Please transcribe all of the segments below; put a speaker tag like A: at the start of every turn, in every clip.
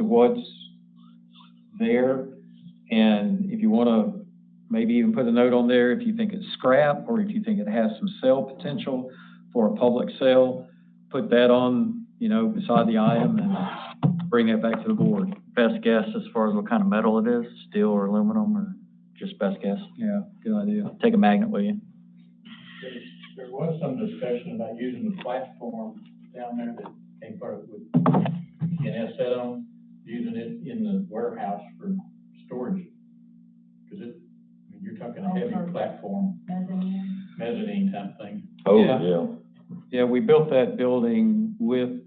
A: what's there. And if you want to maybe even put a note on there, if you think it's scrap or if you think it has some sale potential for a public sale, put that on, you know, beside the item and bring that back to the board.
B: Best guess as far as what kind of metal it is, steel or aluminum, or just best guess?
A: Yeah, good idea.
B: Take a magnet, will you?
C: There- There was some discussion about using the platform down there that came part of with NS set on, using it in the warehouse for storage. Cause it, I mean, you're talking a heavy platform,
D: mezzanine.
C: mezzanine type thing.
E: Oh,
A: Yeah.
E: yeah.
A: Yeah, we built that building with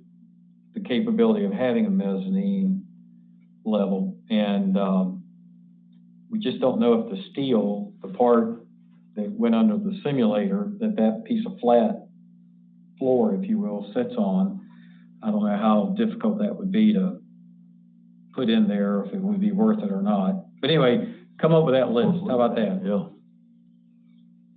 A: the capability of having a mezzanine level. And, um, we just don't know if the steel, the part that went under the simulator, that that piece of flat floor, if you will, sits on. I don't know how difficult that would be to put in there, if it would be worth it or not. But anyway, come up with that list. How about that?
E: Yeah,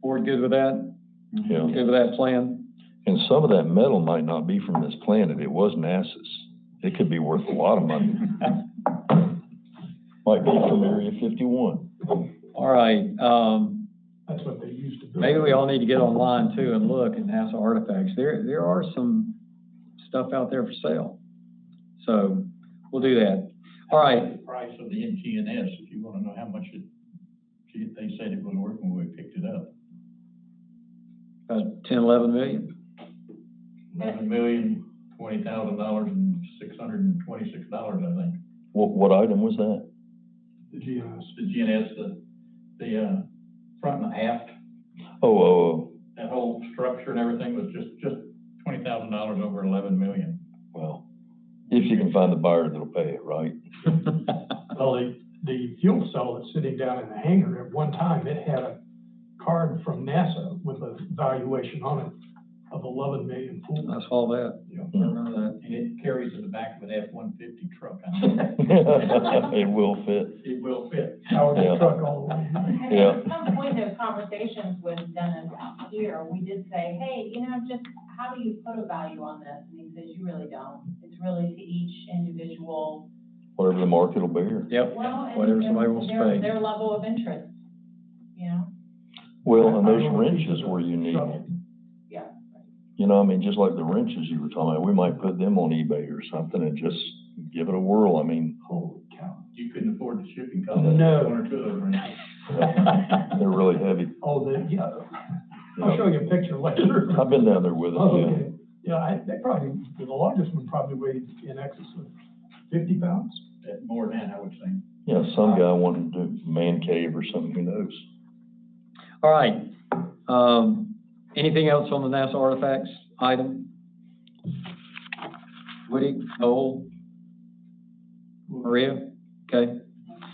A: Board good with that?
E: yeah.
A: Good with that plan?
E: And some of that metal might not be from this planet. It was NASA's. It could be worth a lot of money. Might be from Area fifty-one.
A: All right, um,
C: That's what they used to do.
A: Maybe we all need to get online too and look at NASA artifacts. There, there are some stuff out there for sale. So we'll do that. All right,
C: Price of the NGNS, if you wanna know how much it, she- they said it was worth when we picked it up.
A: about Uh, ten, eleven million.
C: Eleven million, twenty thousand dollars and six hundred and twenty-six dollars, I think.
E: What, what item was that?
C: The GNS. The GNS, the, the, uh, front and aft,
E: Oh, oh, oh,
C: that whole structure and everything was just, just twenty thousand dollars over eleven million.
E: well, if you can find the buyer that'll pay it, right?
F: Well, the, the fuel cell that's sitting down in the hangar, at one time, it had a card from NASA with a valuation on it of eleven million full.
A: I saw that.
C: Yeah.
A: I remember that.
C: And it carries in the back of an F-150 truck. I think.
E: It will fit.
C: It will fit.
F: Powered
E: Yeah.
F: the truck all the way.
D: And
E: Yeah.
D: at some point, those conversations with Dennis out here, we did say, hey, you know, just, how do you put a value on this? And he says, you really don't. It's really to each individual,
E: Whatever the market will bear.
A: Yep,
D: well, and
A: whatever
D: their-
A: somebody wants to
D: their-
A: pay.
D: Their level of interest, you know?
E: Well, and those wrenches were unique.
D: Yeah.
E: You know, I mean, just like the wrenches you were talking about, we might put them on eBay or something and just give it a whirl. I mean,
F: Holy cow.
C: You couldn't afford the shipping cost. of
F: No.
C: One or two of those. wrenches.
E: they're really heavy.
F: Oh, the, yeah,
E: you know.
F: I'll show you a picture later.
E: I've been down there with
F: Oh,
E: them,
F: okay. Yeah, I, they probably, the largest one probably weighed in excess of fifty pounds.
C: That- More than that, I would think.
E: yeah. Yeah, some guy wanted to do man cave or something, who knows?
A: All right, um, anything else on the NASA artifacts item? Woody, Noel? Maria? Okay.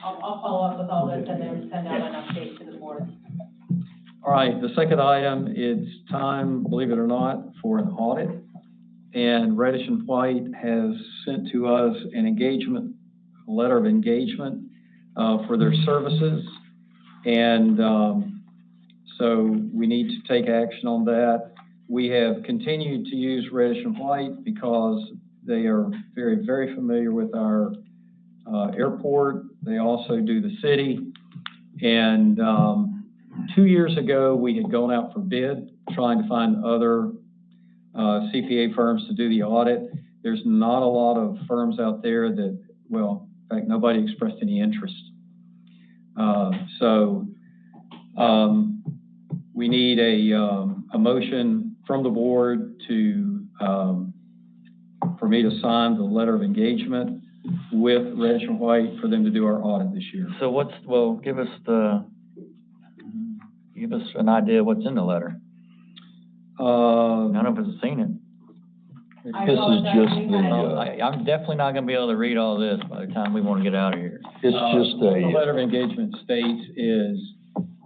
D: I'll, I'll follow up with all this and then send out an update to the board.
A: All right, the second item, it's time, believe it or not, for an audit. And Reddish and White has sent to us an engagement, a letter of engagement uh, for their services. And um, so we need to take action on that. We have continued to use Reddish and White because they are very, very familiar with our uh, airport. They also do the city. And um, two years ago, we had gone out for bid, trying to find other uh, CPA firms to do the audit. There's not a lot of firms out there that, well, in fact, nobody expressed any interest. Uh, So um, we need a, um, a motion from the board to, um, for me to sign the letter of engagement with Reddish and White for them to do our audit this year.
B: So what's, well, give us the, give us an idea of what's in the letter.
A: Uh,
B: None of us have seen it.
D: I
E: This is
D: apologize,
E: just
D: we
E: the,
D: had-
E: uh,
B: I, I'm definitely not gonna be able to read all this by the time we wanna get out of here.
E: It's
A: Uh,
E: just
A: What the
E: a,
A: letter of engagement states is,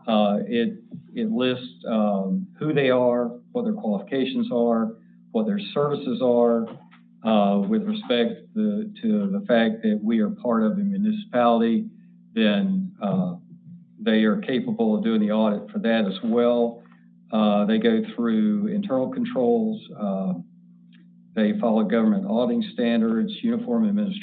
A: uh, it, it lists, um, who they are, what their qualifications are, what their services are, uh, with respect the, to the fact that we are part of a municipality, then, uh, they are capable of doing the audit for that as well. Uh, they go through internal controls, uh, they follow government auditing standards, uniform administration